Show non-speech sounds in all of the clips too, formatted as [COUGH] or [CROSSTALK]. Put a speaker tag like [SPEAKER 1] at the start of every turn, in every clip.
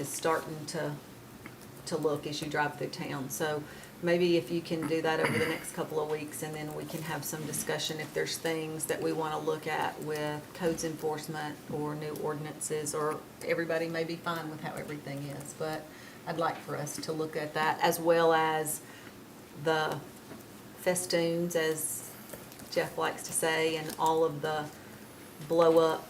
[SPEAKER 1] is starting to, to look as you drive through town. So maybe if you can do that over the next couple of weeks, and then we can have some discussion if there's things that we want to look at with codes enforcement or new ordinances, or everybody may be fine with how everything is, but I'd like for us to look at that, as well as the festoons, as Jeff likes to say, and all of the blow-up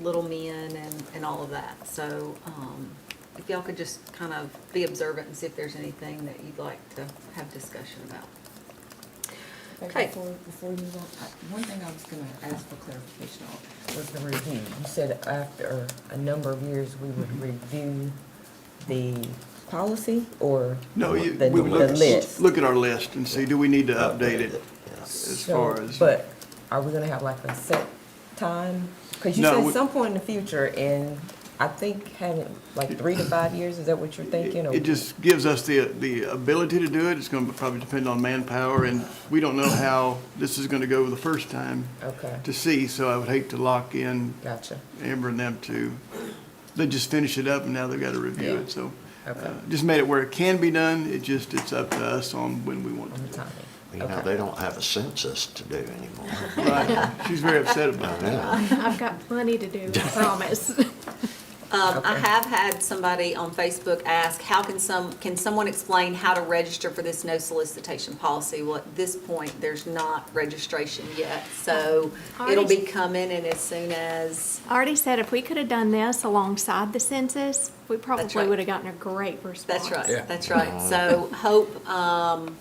[SPEAKER 1] little men and, and all of that. So, um, if y'all could just kind of be observant and see if there's anything that you'd like to have discussion about. Okay.
[SPEAKER 2] Before, before we move on, I- one thing I was gonna ask for clarification on was the review. You said after a number of years, we would review the policy or?
[SPEAKER 3] No, you,
[SPEAKER 2] the-
[SPEAKER 3] we
[SPEAKER 2] the
[SPEAKER 3] look,
[SPEAKER 2] list?
[SPEAKER 3] look at our list and see, do we need to update it as
[SPEAKER 2] So,
[SPEAKER 3] far as?
[SPEAKER 2] But are we gonna have like a set time? Cause you
[SPEAKER 3] No,
[SPEAKER 2] said
[SPEAKER 3] we-
[SPEAKER 2] some point in the future and I think having like three to five years, is that what you're thinking? or-
[SPEAKER 3] It just gives us the, the ability to do it. It's gonna probably depend on manpower and we don't know how this is gonna go the first time
[SPEAKER 2] Okay,
[SPEAKER 3] to see, so I would hate to lock in
[SPEAKER 2] gotcha.
[SPEAKER 3] Amber and them to, they just finish it up and now they've gotta review
[SPEAKER 2] Yeah.
[SPEAKER 3] it, so. uh,
[SPEAKER 2] Okay.
[SPEAKER 3] Just made it where it can be done. It just, it's up to us on when we want to
[SPEAKER 2] On the
[SPEAKER 3] do
[SPEAKER 2] timing.
[SPEAKER 4] You know,
[SPEAKER 2] Okay.
[SPEAKER 4] they don't have a census to do anymore.
[SPEAKER 3] it. Right. She's very upset about
[SPEAKER 4] I
[SPEAKER 3] that.
[SPEAKER 4] know.
[SPEAKER 5] I've got plenty to do, I promise.
[SPEAKER 1] Um, I
[SPEAKER 2] Okay.
[SPEAKER 1] have had somebody on Facebook ask, how can some, can someone explain how to register for this no solicitation policy? Well, at this point, there's not registration yet, so it'll be
[SPEAKER 5] Already-
[SPEAKER 1] coming and as soon as,
[SPEAKER 5] I Already said if we could have done this alongside the census, we probably
[SPEAKER 1] right.
[SPEAKER 5] would have gotten a great
[SPEAKER 1] that's
[SPEAKER 5] response.
[SPEAKER 1] right, that's right. So hope, um,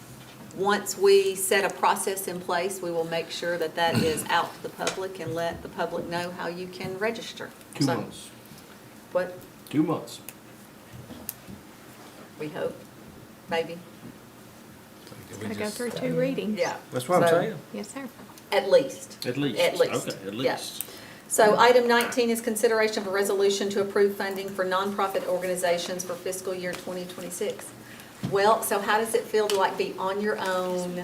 [SPEAKER 1] once we set a process in place, we will make sure that that is out to the public and let the public know how you can register.
[SPEAKER 6] Two
[SPEAKER 1] So-
[SPEAKER 6] months,
[SPEAKER 1] What,
[SPEAKER 6] two months.
[SPEAKER 1] we hope, maybe?
[SPEAKER 5] Gotta go through two readings.
[SPEAKER 1] Yeah.
[SPEAKER 6] That's what I'm
[SPEAKER 1] So-
[SPEAKER 6] saying.
[SPEAKER 5] Yes, sir.
[SPEAKER 1] At least.
[SPEAKER 6] At least.
[SPEAKER 1] At least.
[SPEAKER 6] Okay, at
[SPEAKER 1] Yeah.
[SPEAKER 6] least.
[SPEAKER 1] So item 19 is consideration of a resolution to approve funding for nonprofit organizations for fiscal year 2026. Well, so how does it feel to like be on your own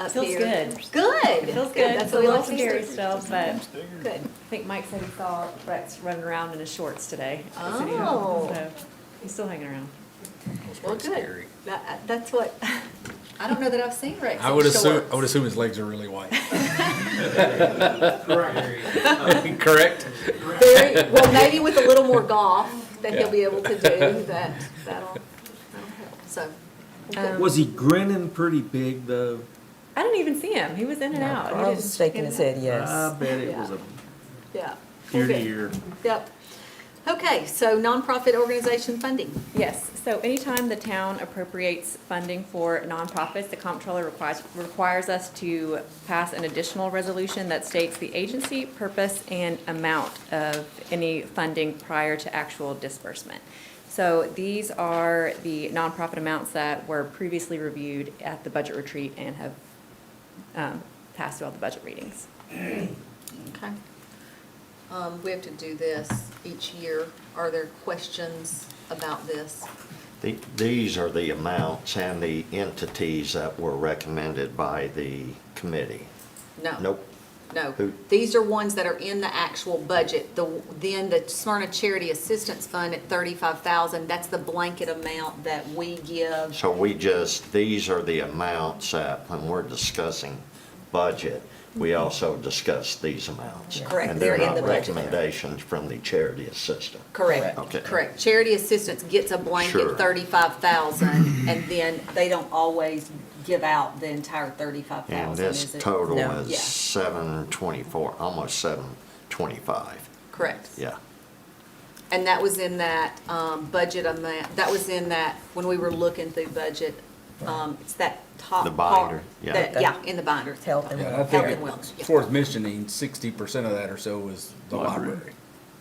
[SPEAKER 1] up
[SPEAKER 7] Feels
[SPEAKER 1] here?
[SPEAKER 7] good.
[SPEAKER 1] Good.
[SPEAKER 7] It feels good.
[SPEAKER 1] That's
[SPEAKER 7] It's
[SPEAKER 1] what
[SPEAKER 7] a
[SPEAKER 1] we
[SPEAKER 7] little
[SPEAKER 1] like to
[SPEAKER 7] scary
[SPEAKER 1] hear.
[SPEAKER 7] still, but I
[SPEAKER 1] Good.
[SPEAKER 7] think Mike said he saw Brett's running around in his shorts today. at the city
[SPEAKER 1] Oh.
[SPEAKER 7] hall, so He's still hanging around.
[SPEAKER 1] Well, good. That- uh, That's what, [LAUGHS] I don't know that I've seen Rex
[SPEAKER 8] I
[SPEAKER 1] in
[SPEAKER 8] would assume,
[SPEAKER 1] shorts.
[SPEAKER 8] I would assume his legs are really white. [LAUGHS] Correct.
[SPEAKER 1] Very, well, maybe with a little more golf that he'll be able to do, that, that'll, that'll help, so. um,
[SPEAKER 6] Was he grinning pretty big though?
[SPEAKER 7] I didn't even see him. He was in and out. He
[SPEAKER 2] I
[SPEAKER 7] didn't-
[SPEAKER 2] was shaking his head, yes.
[SPEAKER 6] I bet it was a
[SPEAKER 1] Yeah.
[SPEAKER 6] ear to
[SPEAKER 1] Okay.
[SPEAKER 6] ear.
[SPEAKER 1] Yep. Okay, so nonprofit organization funding.
[SPEAKER 7] Yes, so anytime the town appropriates funding for nonprofits, the comptroller requires, requires us to pass an additional resolution that states the agency, purpose, and amount of any funding prior to actual disbursement. So these are the nonprofit amounts that were previously reviewed at the budget retreat and have um, passed through all the budget readings.
[SPEAKER 1] Okay. Um, we have to do this each year. Are there questions about this?
[SPEAKER 4] The- These are the amounts and the entities that were recommended by the committee.
[SPEAKER 1] No.
[SPEAKER 4] Nope.
[SPEAKER 1] No.
[SPEAKER 4] Who-
[SPEAKER 1] These are ones that are in the actual budget. The, then the Smyrna Charity Assistance Fund at thirty-five thousand, that's the blanket amount that we give.
[SPEAKER 4] So we just, these are the amounts that, when we're discussing budget, we also discuss these amounts.
[SPEAKER 1] Mm-hmm. Correct,
[SPEAKER 4] And
[SPEAKER 1] they're
[SPEAKER 4] they're
[SPEAKER 1] in the
[SPEAKER 4] not
[SPEAKER 1] budget.
[SPEAKER 4] recommendations from the charity assistant.
[SPEAKER 1] Correct,
[SPEAKER 4] Okay.
[SPEAKER 1] correct. Charity assistance gets a
[SPEAKER 4] Sure.
[SPEAKER 1] blanket thirty-five thousand, and then they don't always give out the entire thirty-five thousand.
[SPEAKER 4] And this total
[SPEAKER 2] No.
[SPEAKER 4] is
[SPEAKER 1] Yeah.
[SPEAKER 4] seven twenty-four, almost seven twenty-five,
[SPEAKER 1] Correct.
[SPEAKER 4] yeah.
[SPEAKER 1] And that was in that um, budget amount, that was in that, when we were looking through budget, um, it's that top
[SPEAKER 4] The
[SPEAKER 1] part.
[SPEAKER 4] binder, yeah.
[SPEAKER 1] that- Yeah, in the binder.
[SPEAKER 2] Health and
[SPEAKER 8] Yeah, I
[SPEAKER 2] welfare.
[SPEAKER 1] Health
[SPEAKER 8] think
[SPEAKER 1] and wellness,
[SPEAKER 8] it's
[SPEAKER 1] yeah.
[SPEAKER 8] worth mentioning, sixty percent of that or so was the
[SPEAKER 6] Library.
[SPEAKER 8] library.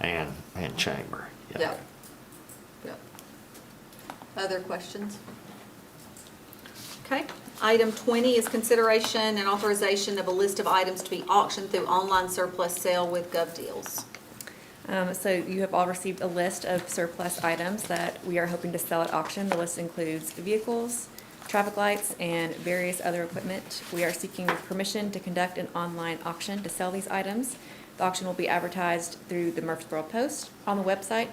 [SPEAKER 4] And, and chamber, yeah.
[SPEAKER 1] Yep. Yep. Other questions? Okay, item twenty is consideration and authorization of a list of items to be auctioned through online surplus sale with Gov Deals.
[SPEAKER 7] Um, So you have all received a list of surplus items that we are hoping to sell at auction. The list includes vehicles, traffic lights, and various other equipment. We are seeking permission to conduct an online auction to sell these items. The auction will be advertised through the Murfreesboro Post, on the website,